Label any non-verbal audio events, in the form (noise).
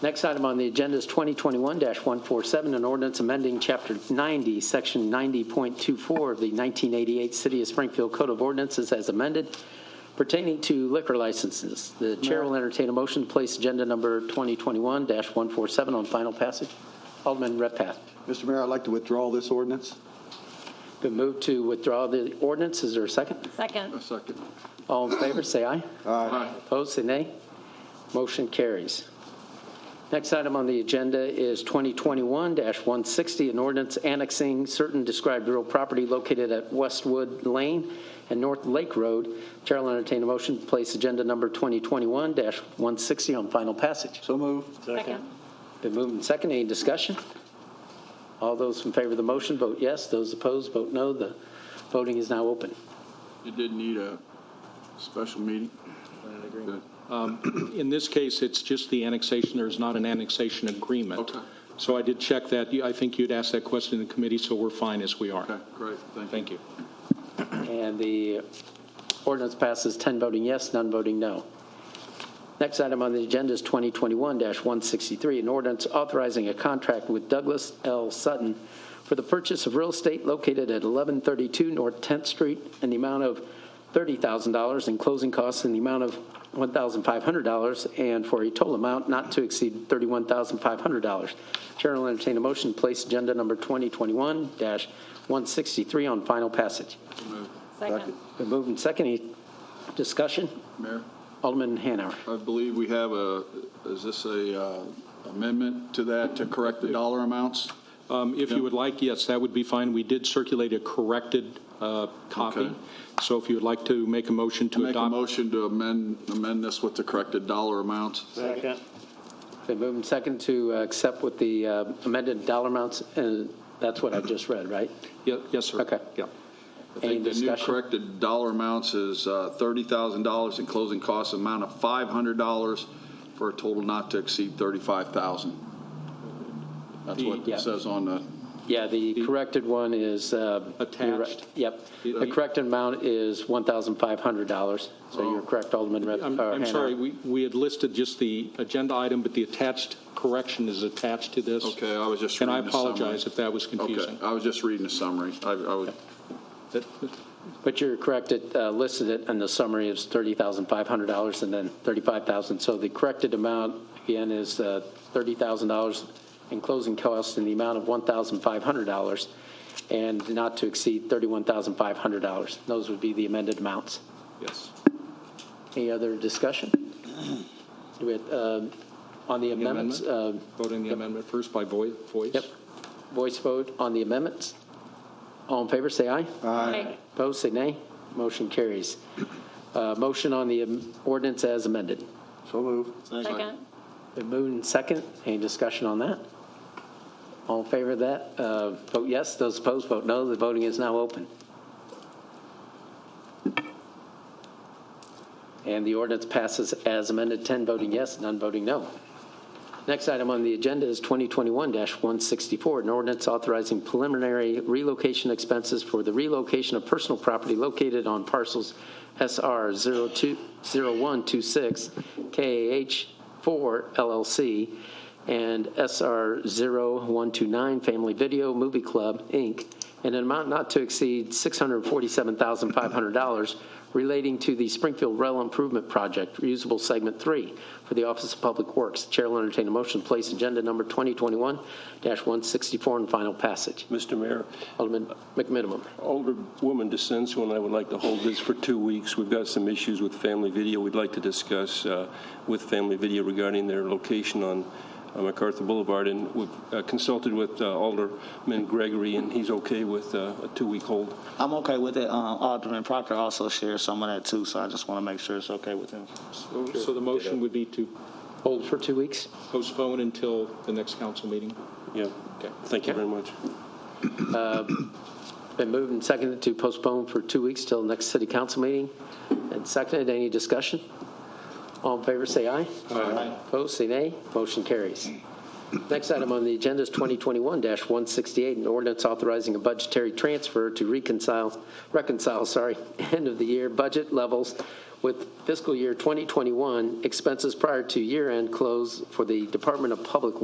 Next item on the agenda is 2021-147, an ordinance amending Chapter 90, Section 90.24 of the 1988 City of Springfield Code of Ordinances as amended pertaining to liquor licenses. The chair will entertain a motion to place agenda number 2021-147 on final passage. Alderman Redpath. Mr. Mayor, I'd like to withdraw this ordinance. Been moved to withdraw the ordinance. Is there a second? Second. second. All in favor, say aye. Aye. Opposed, say nay. Motion carries. Next item on the agenda is 2021-160, an ordinance annexing certain described real property located at Westwood Lane and North Lake Road. Chair will entertain a motion to place agenda number 2021-160 on final passage. So move. Second. Been moved and seconded. Any discussion? All those in favor of the motion, vote yes. Those opposed, vote no. The voting is now open. It did need a special meeting. Good. In this case, it's just the annexation, there's not an annexation agreement. Okay. So I did check that, You- I think you'd asked that question in the committee, so we're fine as we Okay, are. great, thank you. Thank you. And the ordinance passes 10 voting yes, none voting no. Next item on the agenda is 2021-163, an ordinance authorizing a contract with Douglas L. Sutton for the purchase of real estate located at 1132 North 10th Street in the amount of $30,000 and closing costs in the amount of $1,500 and for a total amount not to exceed $31,500. Chair will entertain a motion to place agenda number 2021-163 on final passage. Second. Been moved and seconded. Any Discussion? Mayor, Alderman Hanauer. I believe we have a, is this a uh, amendment to that to correct the dollar amounts? Um, If you would like, yes, that would be fine. We did circulate a corrected uh, copy. Okay. So if you would like to make a motion to Make a adopt. motion to amend, amend this with the corrected dollar amounts. Been moved and seconded to uh, accept with the uh, amended dollar amounts, and that's what I just read, right? Ye- Yes, sir. Okay. Yeah. I Any think the new discussion? corrected dollar amounts is uh, $30,000 and closing costs amount of $500 for a total not to exceed 35,000. That's what Yeah. it says on the, Yeah, the corrected one is. uh, you're right. Attached. Yep. The- The corrected amount is $1,500, so you're correct, Alderman Red- I'm or I'm sorry, Hanauer. we we had listed just the agenda item, but the attached correction is attached to this. okay, I was just And I reading the summary. apologize if that was Okay, confusing. I was just reading the summary. I, I was, That- But you're correct, it uh, listed it in the summary as $30,500 and then $35,000. So the corrected amount, again, is uh, $30,000 in closing costs in the amount of $1,500 and not to exceed $31,500. Those would be the amended amounts. Yes. Any other discussion? Do we, uh, On the amendments, uh, Voting the amendment first by voi- voice. Yep. voice vote on the amendments? All in favor, say aye. Aye. Opposed, say nay. Motion carries. Uh, Motion on the um, ordinance as amended. So move. Second. Been moved and second. Any discussion on that? All in favor of that? uh, Vote yes. Those opposed, vote no. The voting is now open. And the ordinance passes as amended, 10 voting yes, none voting no. Next item on the agenda is 2021-164, an ordinance authorizing preliminary relocation expenses for the relocation of personal property located on parcels SR 0126 KH4 LLC and SR 0129 Family Video Movie Club, Inc., in an amount not to exceed $647,500 relating to the Springfield Rail Improvement Project, reusable segment three, for the Office of Public Works. Chair will entertain a motion to place agenda number 2021-164 on final passage. Mr. Mayor, Alderman McMinimum. older woman dissents when I would like to hold this for two weeks. We've got some issues with Family Video we'd like to discuss uh, with Family Video regarding their location on uh, MacArthur Boulevard, and we've uh, consulted with uh, Alderman Gregory, and he's okay with uh, a two-week hold. I'm okay with it. Um, Alderman Proctor also shares some of that too, so I just want to make sure it's okay with him. So- So the motion would be to Hold for two weeks. postpone until the next council meeting? Yeah, thank you very much. Been moved and seconded to postpone for two weeks till next city council meeting. And seconded, any discussion? All in favor, say aye. Aye. Opposed, say nay. Motion carries. Next item on the agenda is 2021-168, an ordinance authorizing a (laughs) budgetary transfer to reconcile, reconcile, sorry, end-of-the-year budget levels with fiscal year 2021 expenses prior to year-end close for the Department of Public